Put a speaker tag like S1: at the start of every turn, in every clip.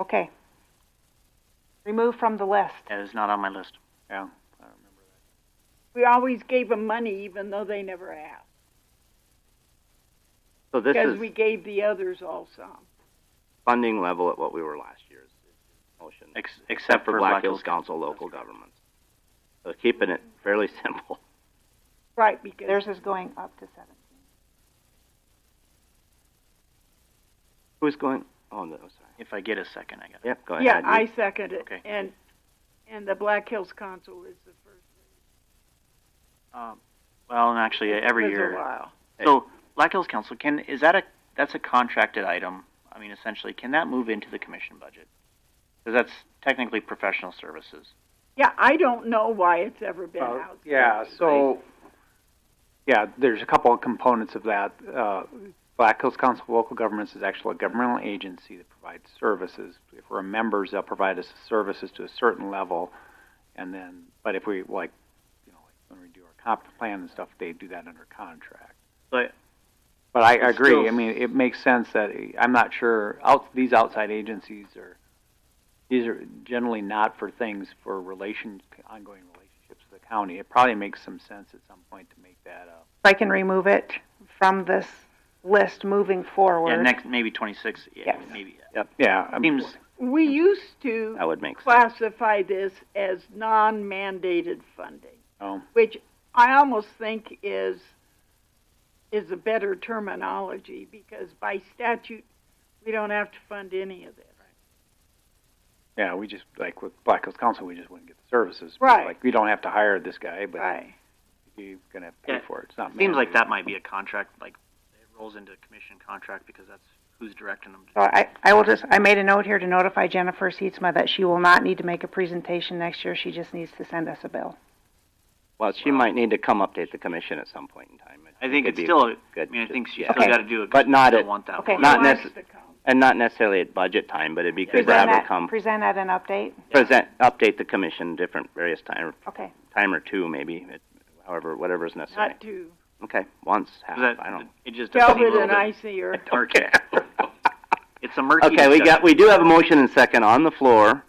S1: Okay. Remove from the list.
S2: That is not on my list. Yeah, I remember that.
S3: We always gave them money even though they never asked.
S4: So this
S3: Because
S4: is
S3: we gave the others all some.
S4: funding level at what we were last year's motion.
S2: Ex- except for Black Hills Council.
S4: Council local governments. So keeping it fairly simple.
S3: Right, because.
S1: Theirs is going up to seven.
S4: Who's going, oh, no, sorry.
S2: If I get a second, I got it.
S4: Yep, go ahead.
S3: Yeah, I second it.
S2: Okay.
S3: And, and the Black Hills Council is the first.
S2: Um, well, and actually, uh, every
S3: It's been a
S2: year.
S3: while.
S2: So Black Hills Council can is that a that's a contracted item? I mean, essentially, can that move into the commission budget? Because that's technically professional services.
S3: Yeah, I don't know why it's ever been
S5: Uh,
S3: out.
S5: Yeah, so, yeah, there's a couple of components of that. Uh, Black Hills Council of Local Governments is actually a governmental agency that provides services. If we're members, they'll provide us services to a certain level, and then, but if we, like, you know, like when we do our comp plan and stuff, they do that under contract.
S2: But
S5: But I
S2: It's
S5: agree.
S2: still-
S5: I mean, it makes sense that I'm not sure out, these outside agencies are these are generally not for things for relation ongoing relationships with the county. It probably makes some sense at some point to make that up.
S1: If I can remove it from this list moving forward.
S2: yeah, next maybe twenty six. Yeah,
S1: Yes.
S2: maybe.
S5: Yep. Yeah. I'm-
S2: Seems
S3: We used to
S4: That would make sense.
S3: classify this as non-mandated funding,
S5: oh,
S3: which I almost think is, is a better terminology because by statute, we don't have to fund any of this.
S5: yeah. We just like with Black Hills Council, we just wouldn't get the services.
S3: Right.
S5: Like we don't have to hire this guy, but
S3: Right.
S5: you're gonna pay
S2: Yeah.
S5: for it. It's not.
S2: seems like
S5: mandated.
S2: that might be a contract. Like it rolls into a commission contract because that's who's directing them.
S1: So I, I will just, I made a note here to notify Jennifer Seatsma that she will not need to make a presentation next year. She just needs to send us a bill.
S4: Well, she might need to come update the commission at some point in time.
S2: I think
S4: Could
S2: it's
S4: be
S2: still. I
S4: good
S2: mean, I
S4: to-
S2: think she
S4: yeah.
S2: still
S1: Okay.
S2: got to do it. 'cause
S4: But
S2: we
S4: not
S2: still
S4: at-
S2: want that.
S1: Okay.
S2: one.
S4: Not
S3: Who wants
S4: necess-
S3: to come?
S4: And not necessarily at budget time, but it'd be good to
S1: Present
S4: have her
S1: that,
S4: come,
S1: present at an update.
S4: present, update the commission different, various time,
S1: Okay.
S4: time or two maybe, it- however, whatever's necessary.
S3: Not to
S4: Okay, once, half,
S2: 'Cause that-
S4: I don't.
S2: It just doesn't seem a
S3: Velvet
S2: little
S3: and
S2: bit
S3: Icier.
S2: murky. It's a murky.
S4: Okay, we
S2: discussion.
S4: got, we do have a motion and second on the floor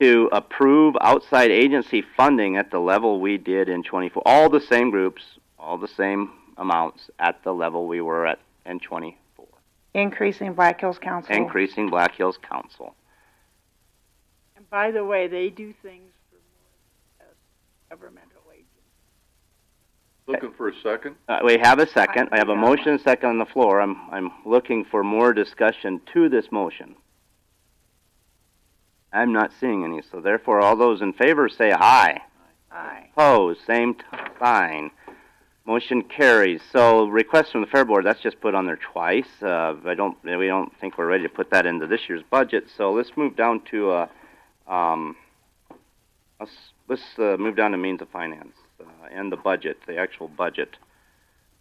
S4: to approve outside agency funding at the level we did in twenty-four, all the same groups, all the same amounts at the level we were at in twenty-four,
S1: Increasing Black Hills Council.
S4: increasing Black Hills Council.
S3: And by the way, they do things for more uh, governmental agencies.
S6: Looking for a second?
S4: Uh, we have a second, I have a
S1: Yeah.
S4: motion and second on the floor, I'm, I'm looking for more discussion to this motion. I'm not seeing any, so therefore, all those in favor say aye.
S3: Aye.
S4: Opposed, same t- sign. Motion carries. So request from the Fair Board, that's just put on there twice. Uh, I don't, we don't think we're ready to put that into this year's budget, so let's move down to, uh, um, let's, let's, uh, move down to means of finance, uh, and the budget, the actual budget.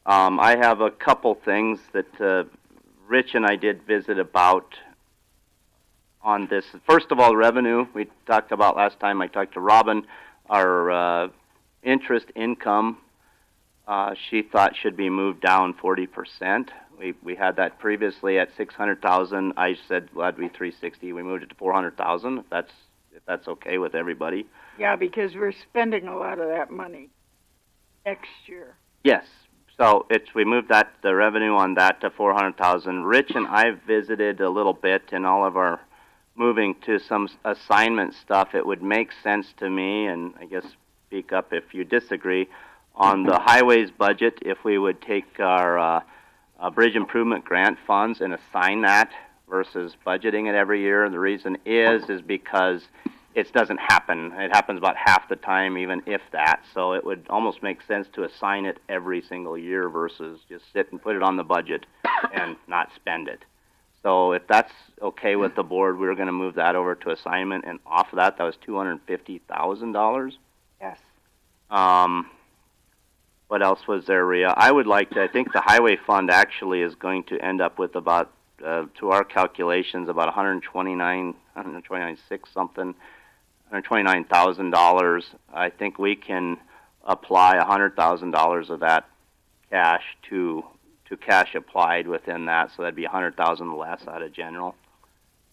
S4: Um, I have a couple things that, uh, Rich and I did visit about on this. First of all, revenue, we talked about last time, I talked to Robin, our uh, interest income, uh, she thought should be moved down 40%. We, we had that previously at 600,000. I said, well, that'd be 360. We moved it to 400,000, if that's, if that's okay with everybody.
S3: Yeah, because we're spending a lot of that money next year.
S4: Yes. So it's we moved that the revenue on that to four hundred thousand. Rich and I visited a little bit in all of our moving to some s- assignment stuff. It would make sense to me, and I guess speak up if you disagree on the highways budget. If we would take our uh, uh, bridge improvement grant funds and assign that versus budgeting it every year, and the reason is is because it doesn't happen. It happens about half the time, even if that. So it would almost make sense to assign it every single year versus just sit and put it on the budget and not spend it. So if that's okay with the board, we're going to move that over to assignment. And off of that, that was two hundred fifty thousand dollars.
S1: Yes.
S4: Um, what else was there, Rhea? I would like to, I think the highway fund actually is going to end up with about, uh, to our calculations, about 129, 129.6 something, $129,000. I think we can apply $100,000 of that cash to, to cash applied within that, so that'd be 100,000 less out of general.